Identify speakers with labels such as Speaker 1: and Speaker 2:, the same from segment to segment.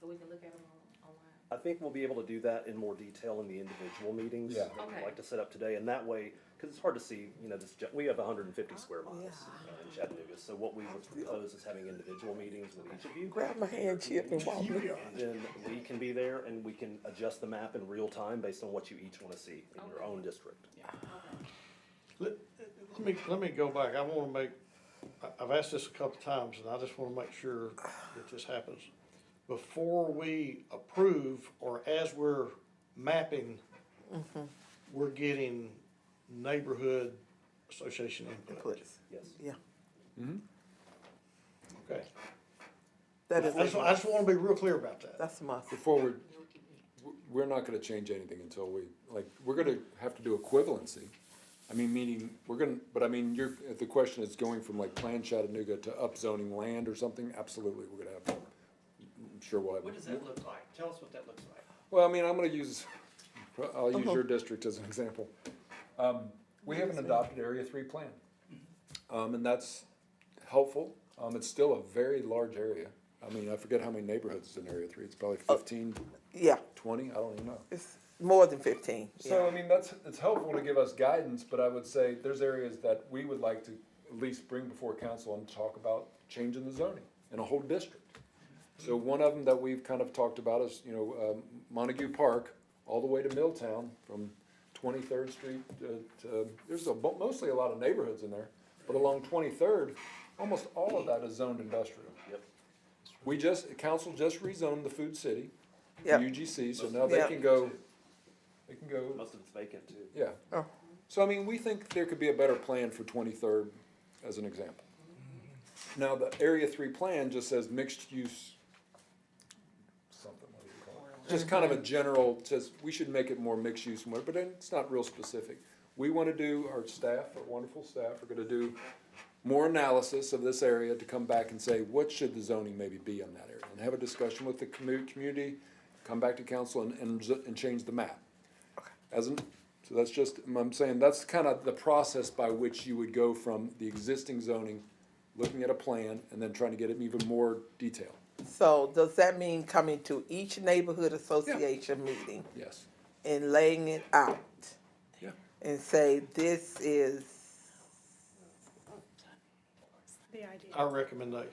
Speaker 1: so we can look at them on- online?
Speaker 2: I think we'll be able to do that in more detail in the individual meetings
Speaker 3: Yeah.
Speaker 2: that we'd
Speaker 1: Okay.
Speaker 2: like to set up today, and that way, because it's hard to see, you know, this, ju- we have hundred and fifty square miles
Speaker 4: Oh, Yeah.
Speaker 2: uh, in Chattanooga, so what we would propose is having individual meetings with each of you.
Speaker 4: Grab my hand, Chip, and walk me.
Speaker 2: And then we can be there and we can adjust the map in real time based on what you each want to see in your
Speaker 1: Okay.
Speaker 2: own district.
Speaker 3: Let, let me, let me go back, I wanna make, I, I've asked this a couple times, and I just wanna make sure that this happens. Before we approve, or as we're mapping,
Speaker 4: Mm-hmm.
Speaker 3: we're getting neighborhood association input,
Speaker 4: Please.
Speaker 2: Yes.
Speaker 4: Yeah,
Speaker 3: okay? I
Speaker 4: that is,
Speaker 3: just, I just wanna be real clear about that.
Speaker 4: that's a must.
Speaker 5: Before we, we're not gonna change anything until we, like, we're gonna have to do equivalency. I mean, meaning, we're gonna, but I mean, you're, if the question is going from like Plan Chattanooga to upzoning land or something, absolutely, we're gonna have, to- I'm sure we'll have.
Speaker 6: What does that look like? Tell us what that looks like.
Speaker 5: Well, I mean, I'm gonna use, I'll use your district as an example. Um, we have an adopted Area Three plan. Um, and that's helpful, um, it's still a very large area. I mean, I forget how many neighborhoods is in Area Three, it's probably
Speaker 6: Uh,
Speaker 5: fifteen,
Speaker 4: Yeah,
Speaker 5: twenty, I don't even know.
Speaker 4: it's more than fifteen,
Speaker 5: So,
Speaker 4: yeah.
Speaker 5: I mean, that's, it's helpful to give us guidance, but I would say there's areas that we would like to at least bring before council and talk about changing the zoning in a whole district. So one of them that we've kind of talked about is, you know, um, Montague Park, all the way to Milltown, from Twenty-third Street to, to, there's a, bu- mostly a lot of neighborhoods in there, but along Twenty-third, almost all of that is zoned industrial.
Speaker 2: Yep.
Speaker 5: We just, council just rezoned the Food City, the
Speaker 4: Yep.
Speaker 5: UGC, so now they
Speaker 4: Yep.
Speaker 5: can go, they can go.
Speaker 2: Most of it's vacant too.
Speaker 5: Yeah.
Speaker 4: Oh.
Speaker 5: So, I mean, we think there could be a better plan for twenty-third, as an example. Now, the Area Three plan just says mixed use, something, what do you call it? Just kind of a general, says, we should make it more mixed use, more, but then it's not real specific. We wanna do, our staff, our wonderful staff, are gonna do more analysis of this area to come back and say, what should the zoning maybe be on that area? And have a discussion with the commu- community, come back to council and, and, z- and change the map. As an, so that's just, I'm saying, that's kind of the process by which you would go from the existing zoning, looking at a plan, and then trying to get it even more detailed,
Speaker 4: So does that mean coming to each neighborhood association meeting
Speaker 5: yes.
Speaker 4: and laying it out?
Speaker 5: Yeah.
Speaker 4: And say, this is
Speaker 7: the idea.
Speaker 3: Our recommendation,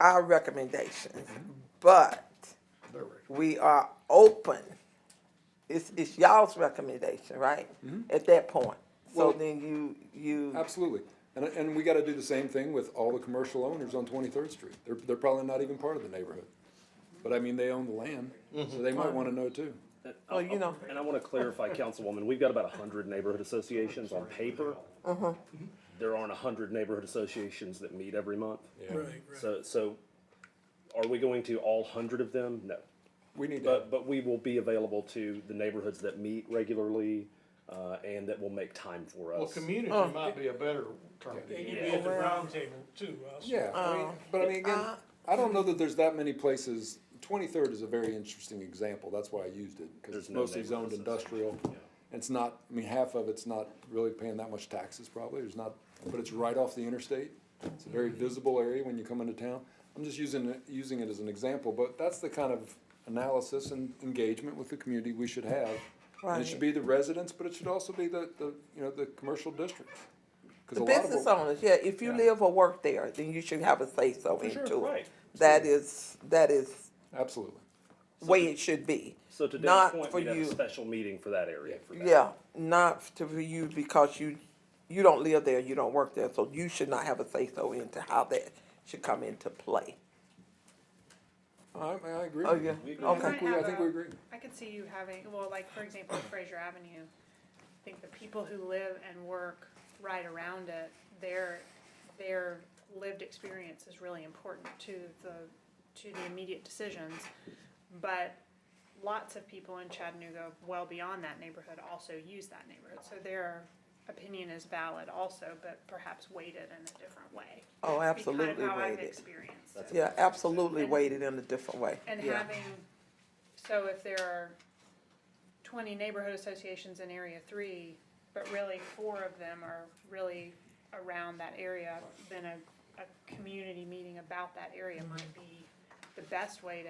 Speaker 4: our recommendations,
Speaker 5: Mm-hmm.
Speaker 4: but
Speaker 3: their recommendation.
Speaker 4: we are open. It's, it's y'all's recommendation, right? At that point,
Speaker 5: Mm-hmm.
Speaker 4: so
Speaker 5: Well-
Speaker 4: then you, you,
Speaker 5: Absolutely, and, and we gotta do the same thing with all the commercial owners on Twenty-third Street, they're, they're probably not even part of the neighborhood. But I mean, they own the land, so they might wanna know too.
Speaker 4: Well, you know-
Speaker 2: And I want to clarify, Councilwoman, we've got about hundred neighborhood associations on paper.
Speaker 4: Uh-huh.
Speaker 2: There aren't hundred neighborhood associations that meet every month.
Speaker 5: Right.
Speaker 2: So, so are we going to all hundred of them? No.
Speaker 5: We need to,
Speaker 2: But, but we will be available to the neighborhoods that meet regularly, uh, and that will make time for us.
Speaker 3: Well, community
Speaker 4: Oh.
Speaker 3: might be a better term.
Speaker 8: They could be at the round table too, also.
Speaker 5: yeah, I
Speaker 4: Um,
Speaker 5: mean, but I mean, again,
Speaker 4: uh,
Speaker 5: I don't know that there's that many places, Twenty-third is a very interesting example, that's why I used it, cause
Speaker 2: There's
Speaker 5: it's
Speaker 2: no
Speaker 5: mostly zoned
Speaker 2: neighborhood association.
Speaker 5: industrial. It's not, I mean, half of it's not really paying that much taxes probably, there's not, but it's right off the interstate. It's a
Speaker 2: Mm-hmm.
Speaker 5: very visible area when you come into town. I'm just using, it- using it as an example, but that's the kind of analysis and engagement with the community we should have. And it should
Speaker 4: Right.
Speaker 5: be the residents, but it should also be the, the, you know, the commercial districts. 'Cause a
Speaker 4: the
Speaker 5: lot of
Speaker 4: business
Speaker 5: what-
Speaker 4: owners, yeah, if you
Speaker 5: Yeah.
Speaker 4: live or work there, then you should have a say so
Speaker 5: For sure,
Speaker 4: into
Speaker 2: right.
Speaker 4: it. That is, that is
Speaker 5: Absolutely.
Speaker 4: way it should be.
Speaker 2: So to Dan's
Speaker 4: Not
Speaker 2: point,
Speaker 4: for
Speaker 2: we'd have a
Speaker 4: you.
Speaker 2: special meeting for that area. for that.
Speaker 4: Yeah, not to for you because you, you don't live there, you don't work there, so you should not have a say so into how that should come into play.
Speaker 5: I, I agree.
Speaker 4: Oh, yeah,
Speaker 5: We agree. I
Speaker 4: okay.
Speaker 5: think we, I think we agree.
Speaker 7: I could see you having, well, like, for example, Fraser Avenue, I think the people who live and work right around it, their, their lived experience is really important to the, to the immediate decisions. But lots of people in Chattanooga, well beyond that neighborhood, also use that neighborhood, so their opinion is valid also, but perhaps weighted in a different way.
Speaker 4: Oh,
Speaker 7: That'd be kind of
Speaker 4: absolutely
Speaker 7: how I've
Speaker 4: weighted.
Speaker 7: experienced it.
Speaker 4: Yeah, absolutely weighted in a different way.
Speaker 7: And
Speaker 4: Yeah.
Speaker 7: having, so if there are twenty neighborhood associations in area three, but really four of them are really around that area, then a, a community meeting about that area might be the best way to